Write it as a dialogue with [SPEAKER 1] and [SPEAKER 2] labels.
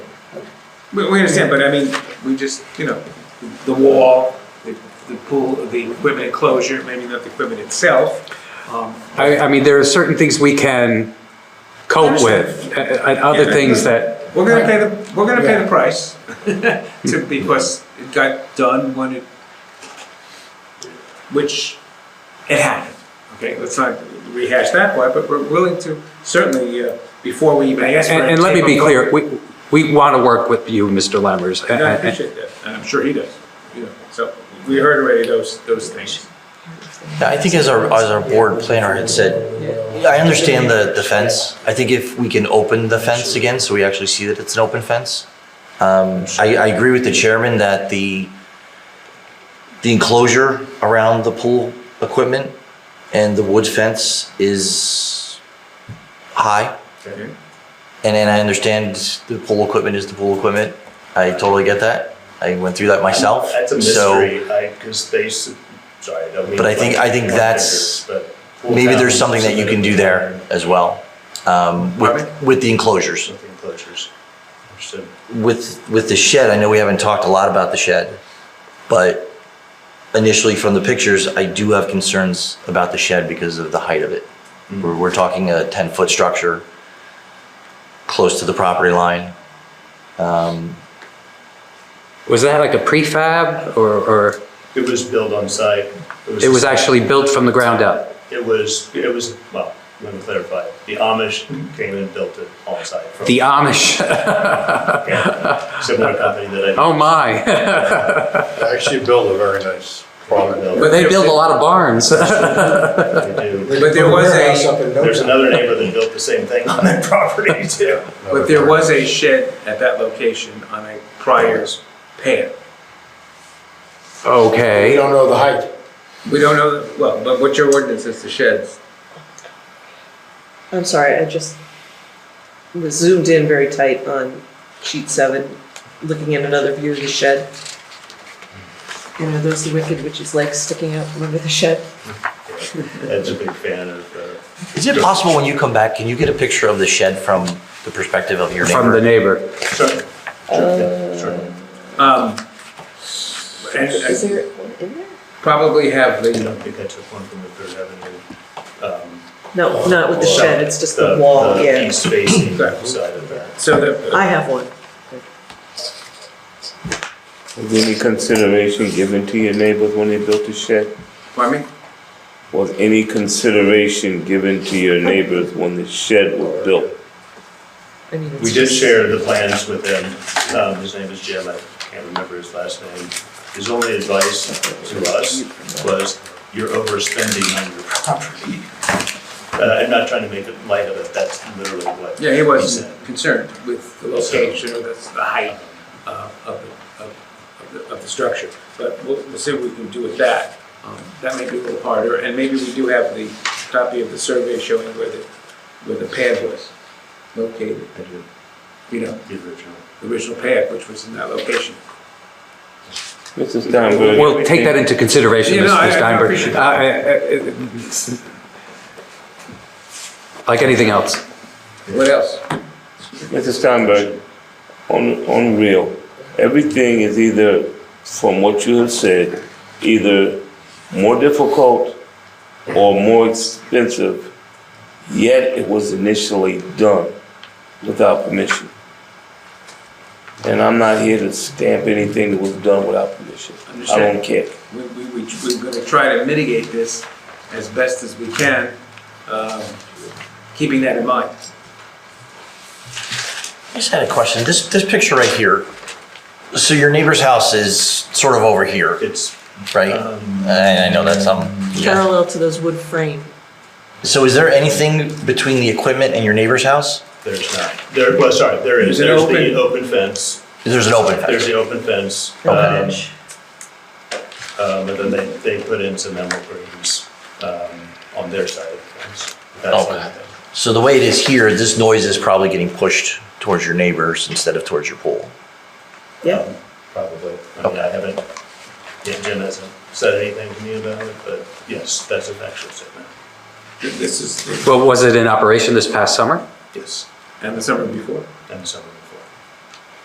[SPEAKER 1] We, we understand, but I mean, we just, you know, the wall, the, the pool, the equipment enclosure, maybe not the equipment itself. Um,
[SPEAKER 2] I, I mean, there are certain things we can cope with, a- a- and other
[SPEAKER 1] Yeah.
[SPEAKER 2] things that,
[SPEAKER 1] We're gonna pay the, we're gonna pay the price, to- because it got done when it, which, it happened, okay, let's not rehash that part, but we're willing to, certainly, uh, before we even ask for
[SPEAKER 2] and,
[SPEAKER 1] it.
[SPEAKER 2] and let me
[SPEAKER 1] take
[SPEAKER 2] be
[SPEAKER 1] a-
[SPEAKER 2] clear, we, we want to work with you, Uh, Mr. Lemmers.
[SPEAKER 1] And I
[SPEAKER 2] and- and-
[SPEAKER 1] appreciate that, and I'm sure he does, you know, so, we heard already those, those things.
[SPEAKER 3] Yeah, I think as our, as our board planner had said, I understand the, the fence. I think if we can open the fence again, so we actually see that it's an open fence. Um, I, I agree with the chairman that the, the enclosure around the pool equipment and the wood fence is high.
[SPEAKER 4] Mm-hmm.
[SPEAKER 1] Okay.
[SPEAKER 3] And then I understand the pool equipment is the pool equipment. I totally get that. I went through that myself.
[SPEAKER 4] That's Uh, a
[SPEAKER 3] So-
[SPEAKER 4] mystery, I, cause they, s- sorry, I don't mean.
[SPEAKER 3] But I
[SPEAKER 4] to
[SPEAKER 3] think-
[SPEAKER 4] like
[SPEAKER 3] I think
[SPEAKER 4] point
[SPEAKER 3] that's-
[SPEAKER 4] fingers, but pull
[SPEAKER 3] Maybe
[SPEAKER 4] down
[SPEAKER 3] there's something that you can do there as well, um,
[SPEAKER 1] Pardon
[SPEAKER 3] with, with the enclosures.
[SPEAKER 4] With the enclosures, understood.
[SPEAKER 3] With, with the shed, I know we haven't talked a lot about the shed, but initially from the pictures, I do have concerns about the shed because of the height of it. We're, we're talking a ten-foot structure close to the property line.
[SPEAKER 2] Was that like a prefab or, or
[SPEAKER 4] It was built on site.
[SPEAKER 2] it was actually built from the ground up?
[SPEAKER 4] It was, it was, well, let me clarify, the Amish came and built it on site. from-
[SPEAKER 2] The Amish,
[SPEAKER 4] Yeah, Similar company that I.
[SPEAKER 2] oh my,
[SPEAKER 5] Actually built a very nice product.
[SPEAKER 2] but they build a lot of barns.
[SPEAKER 4] They do.
[SPEAKER 1] But there was a-
[SPEAKER 4] There's another neighbor that built the same thing on that property too.
[SPEAKER 1] But there was a shed at that location on a prior pad.
[SPEAKER 5] We
[SPEAKER 2] Okay,
[SPEAKER 5] don't know the height.
[SPEAKER 1] We don't know, well, but what's your ordinance is to sheds?
[SPEAKER 6] I'm sorry, I just was zoomed in very tight on sheet seven, looking at another view of the shed. And are those the wicked witch's legs sticking out from under the shed?
[SPEAKER 4] Ed's a big fan of, uh,
[SPEAKER 3] Is it possible when you come back, can you get a picture of the shed from the perspective of your
[SPEAKER 2] from the
[SPEAKER 3] neighbor?
[SPEAKER 2] neighbor.
[SPEAKER 4] certainly,
[SPEAKER 6] Uh,
[SPEAKER 4] certainly, certainly.
[SPEAKER 1] Um, and
[SPEAKER 6] Is
[SPEAKER 1] I
[SPEAKER 6] there one in there?
[SPEAKER 1] probably have
[SPEAKER 4] I
[SPEAKER 1] the,
[SPEAKER 4] don't think I took one from the Third Avenue. um,
[SPEAKER 6] No, not with the shed, it's just the
[SPEAKER 4] the-
[SPEAKER 6] wall,
[SPEAKER 4] the
[SPEAKER 6] yeah.
[SPEAKER 4] East facing
[SPEAKER 1] Exactly.
[SPEAKER 4] side of that.
[SPEAKER 1] so the,
[SPEAKER 6] I have one.
[SPEAKER 7] Was any consideration given to your neighbors when they built the shed?
[SPEAKER 1] pardon me?
[SPEAKER 7] Was any consideration given to your neighbors when the shed was built?
[SPEAKER 6] I mean, it's
[SPEAKER 4] We did
[SPEAKER 6] just-
[SPEAKER 4] share the plans with him. Um, his name is Jim, I can't remember his last name. His only advice to us was, you're overspending on your property. Uh, I'm not trying to make it light of it, that's literally what.
[SPEAKER 1] Yeah, he was
[SPEAKER 4] said.
[SPEAKER 1] concerned with the location or the, the height uh, of, the- of, of the, of the structure. But we'll, we'll see what we can do with that. Um, That may be a little harder, and maybe we do have the copy of the survey showing where the, where the pad was located,
[SPEAKER 4] I do,
[SPEAKER 1] you know,
[SPEAKER 4] the original.
[SPEAKER 1] the original pad, which was in that location.
[SPEAKER 7] Mr. Steinberg?
[SPEAKER 2] We'll take that into consideration,
[SPEAKER 1] Yeah, no, I- I
[SPEAKER 2] Mr. Steinberg.
[SPEAKER 1] appreciate
[SPEAKER 2] Uh, uh, uh, Like anything else.
[SPEAKER 1] What else?
[SPEAKER 7] Mr. Steinberg, on, on real, everything is either, from what you have said, either more difficult or more expensive, yet it was initially done without permission. And I'm not here to stamp anything that was done without permission. I
[SPEAKER 1] Understand.
[SPEAKER 7] don't care.
[SPEAKER 1] We, we, we- we're gonna try to mitigate this as best as we can, um, keeping that in mind.
[SPEAKER 3] I just had a question. This, this picture right here, so your neighbor's house is sort of over here,
[SPEAKER 4] It's,
[SPEAKER 3] right?
[SPEAKER 4] um,
[SPEAKER 3] I, I know that's, um, yeah.
[SPEAKER 6] Parallel to those wood frame.
[SPEAKER 3] So is there anything between the equipment and your neighbor's house?
[SPEAKER 4] there's not, there, well, sorry, there is,
[SPEAKER 1] There's
[SPEAKER 4] there's
[SPEAKER 1] an
[SPEAKER 4] the open fence,
[SPEAKER 3] There's an open
[SPEAKER 4] there's
[SPEAKER 3] fence.
[SPEAKER 4] the open fence.
[SPEAKER 3] Okay.
[SPEAKER 4] um, Um, and then they, they put in some emerald greens, um, on their side of the fence. That's the
[SPEAKER 3] Okay.
[SPEAKER 4] thing.
[SPEAKER 3] So the way it is here, this noise is probably getting pushed towards your neighbors instead of towards your pool.
[SPEAKER 6] Yeah,
[SPEAKER 4] Um, Probably. I mean, I haven't, yeah, Jim hasn't said anything to me about it, but yes, that's a factual statement.
[SPEAKER 1] This is,
[SPEAKER 2] Well, was it in operation this past summer?
[SPEAKER 4] Yes.
[SPEAKER 1] and the summer before.
[SPEAKER 4] And some of